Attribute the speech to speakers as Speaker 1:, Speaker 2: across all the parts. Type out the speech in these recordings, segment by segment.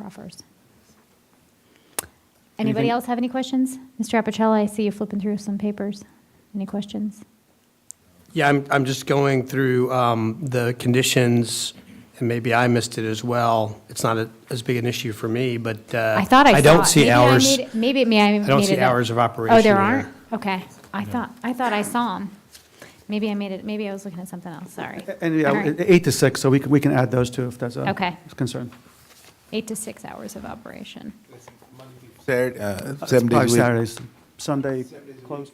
Speaker 1: proffers. Anybody else have any questions? Mr. Appicelli, I see you flipping through some papers. Any questions?
Speaker 2: Yeah, I'm, I'm just going through um, the conditions, and maybe I missed it as well. It's not a- as big an issue for me, but. uh,
Speaker 1: I thought I saw.
Speaker 2: don't
Speaker 1: it.
Speaker 2: see
Speaker 1: Maybe
Speaker 2: hours.
Speaker 1: made- Maybe, it- may I made it
Speaker 2: don't see
Speaker 1: up.
Speaker 2: hours of
Speaker 1: Oh,
Speaker 2: operation
Speaker 1: there
Speaker 2: there.
Speaker 1: aren't? Okay. I thought, I thought I saw them. Maybe I made it, maybe I was looking at something else, sorry.
Speaker 3: And yeah,
Speaker 1: All right.
Speaker 3: eight to six, so we can, we can add those two if that's
Speaker 1: Okay.
Speaker 3: a concern.
Speaker 1: Eight to six hours of operation.
Speaker 4: Saturday, uh,
Speaker 3: It's
Speaker 4: seven
Speaker 3: probably
Speaker 4: days a week.
Speaker 3: Saturdays, Sunday closed.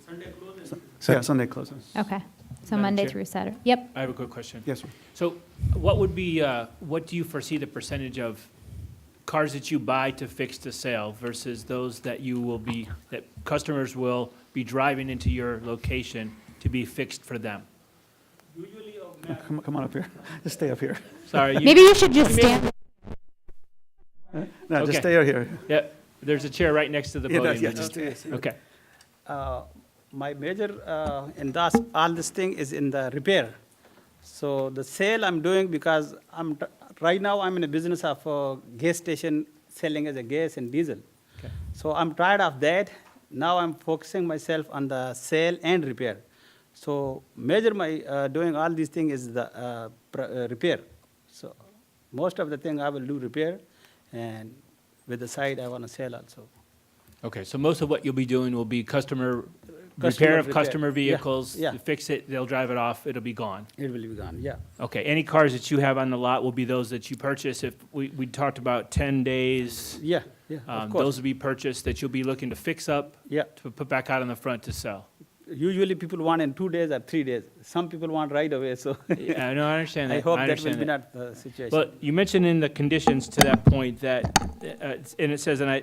Speaker 3: Yeah, Sunday closes.
Speaker 1: Okay. So
Speaker 5: Madam
Speaker 1: Monday
Speaker 5: Chair.
Speaker 1: through Saturday. Yep.
Speaker 5: I have a quick question.
Speaker 3: Yes, sir.
Speaker 5: So what would be, uh, what do you foresee the percentage of cars that you buy to fix to sale versus those that you will be, that customers will be driving into your location to be fixed for them?
Speaker 3: Come, come on up here. Just stay up here.
Speaker 5: Sorry, you-
Speaker 1: Maybe you should just stand.
Speaker 3: No,
Speaker 5: Okay.
Speaker 3: just stay out here.
Speaker 5: yeah, there's a chair right next to the
Speaker 3: Yeah, that's-
Speaker 5: podium.
Speaker 3: yeah, just
Speaker 5: isn't there?
Speaker 3: stay-
Speaker 5: Okay,
Speaker 6: Uh, My major uh, in this, all this thing is in the repair. So the sale I'm doing because I'm, tr- right now I'm in a business of uh, gas station selling as a gas and diesel.
Speaker 5: Okay.
Speaker 6: So I'm tired of that. Now I'm focusing myself on the sale and repair. So major my uh, doing all these things is the uh, pr- uh, repair. So most of the thing I will do repair and with the side I want to sell also.
Speaker 5: okay, so most of what you'll be doing will be customer,
Speaker 6: Customer
Speaker 5: repair of
Speaker 6: repair.
Speaker 5: customer
Speaker 6: Yeah,
Speaker 5: vehicles,
Speaker 6: yeah.
Speaker 5: fix it, they'll drive it off, it'll be gone.
Speaker 6: It will be gone, yeah.
Speaker 5: Okay, any cars that you have on the lot will be those that you purchase if, we, we talked about ten days.
Speaker 6: Yeah, yeah,
Speaker 5: Um,
Speaker 6: of
Speaker 5: Those
Speaker 6: course.
Speaker 5: will be purchased that you'll be looking to fix up,
Speaker 6: Yeah,
Speaker 5: to put back out on the front to sell.
Speaker 6: usually people want in two days or three days. Some people want right away, so
Speaker 5: Yeah, I know, I understand that.
Speaker 6: I hope that will
Speaker 5: understand
Speaker 6: be not the situation.
Speaker 5: But you mentioned in the conditions to that point that, uh, it's- and it says, and I,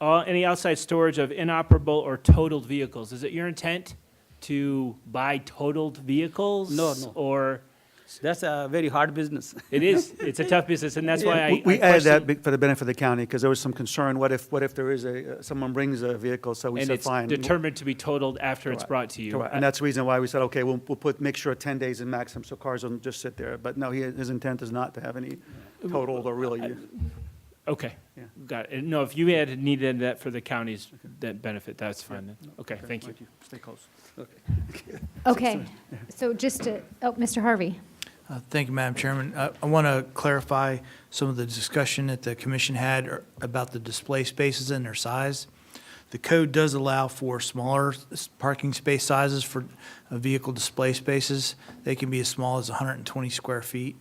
Speaker 5: all, any outside storage of inoperable or totaled vehicles, is it your intent to buy totaled vehicles?
Speaker 6: No, no.
Speaker 5: Or,
Speaker 6: That's a very hard business.
Speaker 5: it is, it's a tough business, and that's why I.
Speaker 3: We- We
Speaker 5: I
Speaker 3: added that
Speaker 5: question-
Speaker 3: be- for the benefit of the county because there was some concern, what if, what if there is a, uh, someone brings a vehicle, so we
Speaker 5: And
Speaker 3: said,
Speaker 5: it's
Speaker 3: fine.
Speaker 5: determined to be totaled after it's
Speaker 3: Correct.
Speaker 5: brought to you.
Speaker 3: Correct. And that's the reason why we said, okay, we'll, we'll put, make sure 10 days is maximum, so cars don't just sit there. But no, he- his intent is not to have any totaled or really,
Speaker 5: Okay,
Speaker 3: Yeah.
Speaker 5: got it. No, if you had needed that for the county's that benefit, that's fine. then. Okay, thank you.
Speaker 3: stay close.
Speaker 1: Okay. So just to, oh, Mr. Harvey.
Speaker 7: Uh, Thank you, Madam Chairman. Uh, I want to clarify some of the discussion that the commission had er- about the display spaces and their size. The code does allow for smaller s- parking space sizes for uh, vehicle display spaces. They can be as small as 120 square feet.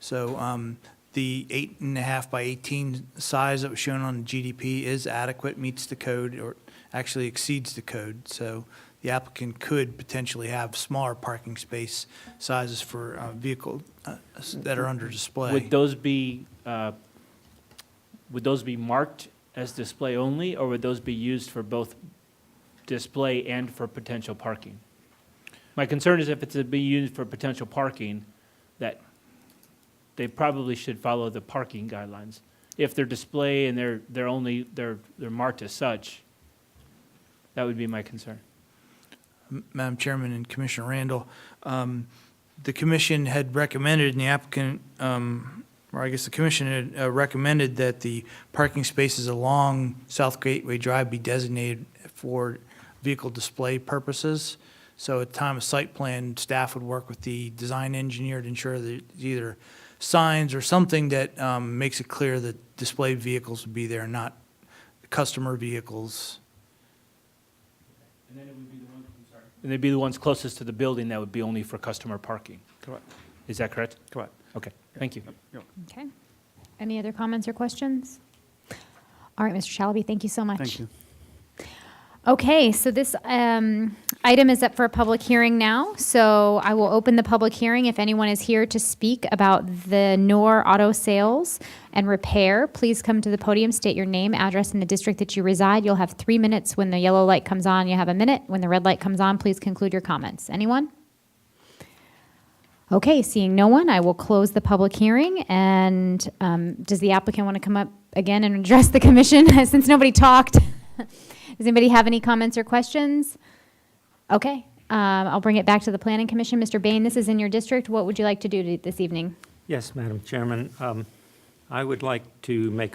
Speaker 7: So um, the eight and a half by 18 size that was shown on the GDP is adequate, meets the code, or actually exceeds the code. So the applicant could potentially have smaller parking space sizes for uh, vehicle uh, s- that are under display.
Speaker 5: Would those be, uh, would those be marked as display only, or would those be used for both display and for potential parking? My concern is if it's to be used for potential parking, that they probably should follow the parking guidelines. If they're display and they're, they're only, they're, they're marked as such, that would be my concern.
Speaker 7: M- Madam Chairman and Commissioner Randall, um, the commission had recommended, and the applicant, um, or I guess the commission had uh, recommended that the parking spaces along South Gateway Drive be designated for vehicle display purposes. So at time of site plan, staff would work with the design engineer to ensure that it's either signs or something that um, makes it clear that display vehicles would be there, not customer vehicles.
Speaker 5: And then it would be the ones, And they'd be the ones closest to the building that would be only for customer parking.
Speaker 3: Correct,
Speaker 5: Is that correct?
Speaker 3: correct.
Speaker 5: Okay, thank you.
Speaker 1: Okay. Any other comments or questions? All right, Mr. Shalaby, thank you so much.
Speaker 3: Thank you.
Speaker 1: Okay, so this um, item is up for a public hearing now, so I will open the public hearing. If anyone is here to speak about the Nor Auto Sales and Repair, please come to the podium, state your name, address, and the district that you reside. You'll have three minutes. When the yellow light comes on, you have a minute. When the red light comes on, please conclude your comments. Anyone? Okay, seeing no one, I will close the public hearing. And um, does the applicant want to come up again and address the commission since nobody talked? Does anybody have any comments or questions? Okay, um, I'll bring it back to the planning commission. Mr. Bain, this is in your district. What would you like to do to- this evening?
Speaker 8: Yes, Madam Chairman. Um,
Speaker 5: I would like to make a